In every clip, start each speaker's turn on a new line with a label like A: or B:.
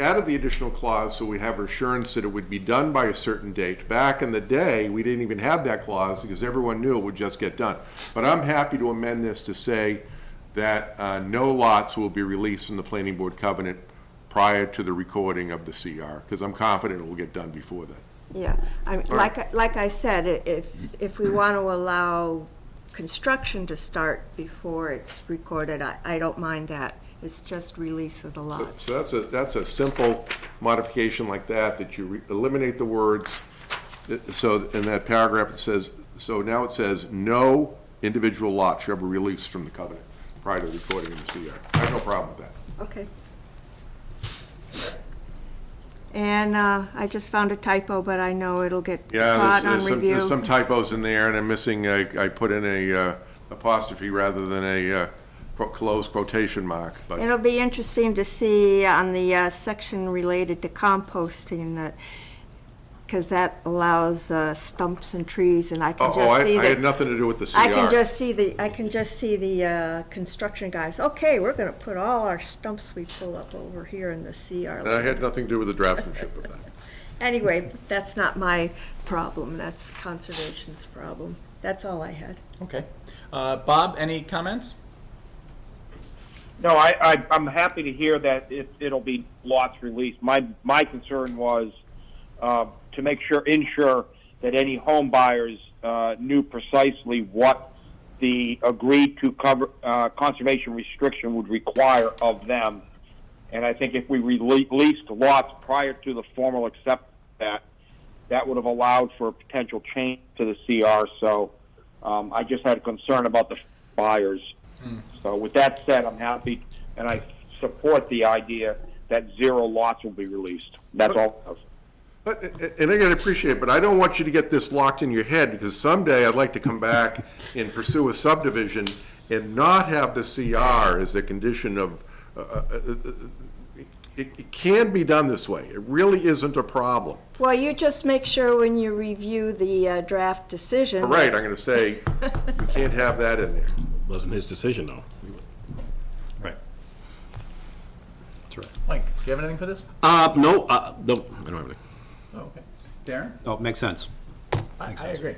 A: added the additional clause so we have assurance that it would be done by a certain date. Back in the day, we didn't even have that clause because everyone knew it would just get done. But I'm happy to amend this to say that uh, no lots will be released from the planning board covenant prior to the recording of the CR, because I'm confident it will get done before then.
B: Yeah, I mean, like, I- like I said, i- if, if we want to allow construction to start before it's recorded, I, I don't mind that. It's just release of the lots.
A: So that's a, that's a simple modification like that, that you re- eliminate the words. Uh, So in that paragraph, it says, so now it says, no individual lot shall be released from the covenant prior to recording in the CR. I have no problem with that.
B: Okay. And uh, I just found a typo, but I know it'll get
A: Yeah,
B: caught
A: there's-
B: on
A: there's some, there's some
B: review.
A: typos in there, and I'm missing, I, I put in a uh, apostrophe rather than a uh, quote- closed quotation mark, but.
B: It'll be interesting to see on the uh, section related to composting that, because that allows uh, stumps and trees, and I
A: Oh,
B: can
A: oh, I,
B: just see
A: I
B: that.
A: had nothing to do with the CR.
B: I can just see the, I can just see the uh, construction guys, okay, we're gonna put all our stumps we pull up over here in the CR.
A: And I had nothing to do with the draftsmanship of that.
B: Anyway, that's not my problem, that's conservation's problem. That's all I had.
C: Okay. Uh, Bob, any comments?
D: No, I, I, I'm happy to hear that it, it'll be lots released. My, my concern was uh, to make sure, ensure that any home buyers uh, knew precisely what the agreed to cover, uh, conservation restriction would require of them. And I think if we rele- released lots prior to the formal accept that, that would have allowed for a potential change to the CR. So um, I just had a concern about the buyers. So with that said, I'm happy and I support the idea that zero lots will be released. That's all.
A: But- And I gotta appreciate, but I don't want you to get this locked in your head, because someday I'd like to come back and pursue a subdivision and not have the CR as a condition of, uh, uh, uh, uh, it, it can be done this way. It really isn't a problem.
B: Well, you just make sure when you review the uh, draft decision.
A: All right, I'm gonna say, we can't have that in there.
E: Wasn't his decision, though.
C: Right.
E: That's right.
C: Mike, do you have anything for this?
E: Uh, no, uh, no, I don't have anything.
C: Oh, okay. Darren?
E: Oh, makes sense.
C: I, I agree.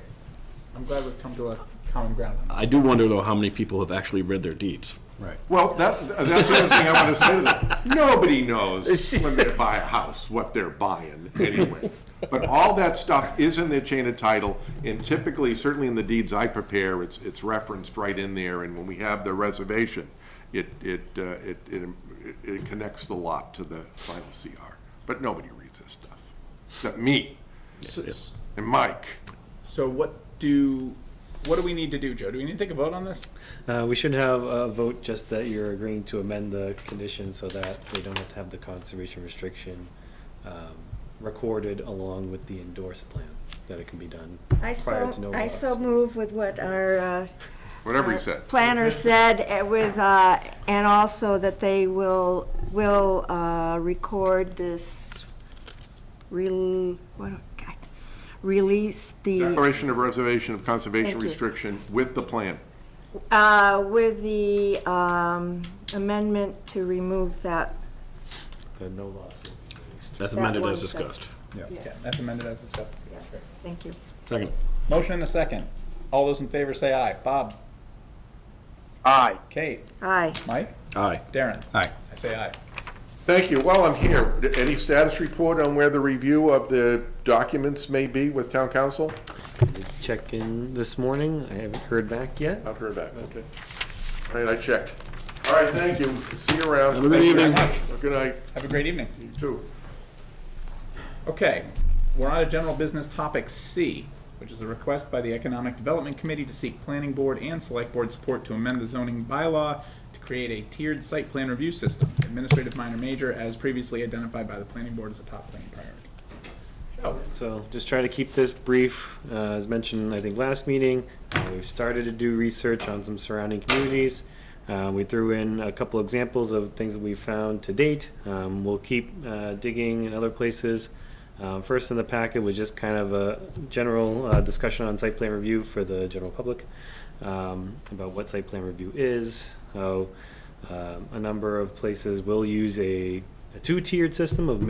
C: I'm glad we've come to a common ground. on
E: I do wonder, though, how many people have actually read their deeds.
C: Right.
A: Well, that, that's the other thing I wanna say to them. Nobody knows when they buy a house, what they're buying, anyway. But all that stuff is in their chain of title, and typically, certainly in the deeds I prepare, it's, it's referenced right in there, and when we have the reservation, it, it, uh, it, it it connects the lot to the final CR. But nobody reads this stuff, except me and Mike.
C: So what do, what do we need to do, Joe? Do we need to take a vote on this?
F: Uh, we should have a vote just that you're agreeing to amend the condition so that they don't have to have the conservation restriction um, recorded along with the endorsed plan, that it can be done.
B: I
F: prior
B: so,
F: to no
B: I
F: lots.
B: so move with what our. uh,
A: Whatever he
B: uh,
A: said.
B: Planner said uh, with, uh, and also that they will, will uh, record this, rel- what, God, release the,
A: Declaration of reservation of conservation
B: Thank you.
A: restriction with the plan.
B: uh, with the um, amendment to remove that.
F: The no loss will be released.
E: That's
B: That
E: amended
B: one
E: as
B: second.
E: discussed.
C: Yeah.
B: Yes.
C: Okay, That's amended as discussed. Okay.
B: Thank you.
E: Second.
C: Motion and a second. All those in favor say aye. Bob,
D: Aye.
C: Kate,
B: Aye.
C: Mike,
E: Aye.
C: Darren.
E: Aye.
C: I say aye.
A: Thank you. While I'm here, any status report on where the review of the documents may be with town council?
F: Check in this morning, I haven't heard back yet.
A: I've heard that, okay. All right, I checked. All right, thank you. See you around.
E: Have a good
A: Thank you very
E: evening.
A: much. Good night,
C: Have a great evening.
A: you too.
C: Okay, we're on to general business topic C, which is a request by the Economic Development Committee to seek planning board and select board support to amend the zoning bylaw to create a tiered site plan review system, administrative minor major, as previously identified by the planning board as a top planning priority. So,
F: So just try to keep this brief. Uh, As mentioned, I think last meeting, uh, we've started to do research on some surrounding communities. Uh, We threw in a couple examples of things that we found to date. Um, We'll keep uh, digging in other places. Uh, First in the packet was just kind of a general uh, discussion on site plan review for the general public, um, about what site plan review is, how um, a number of places will use a a two-tiered system of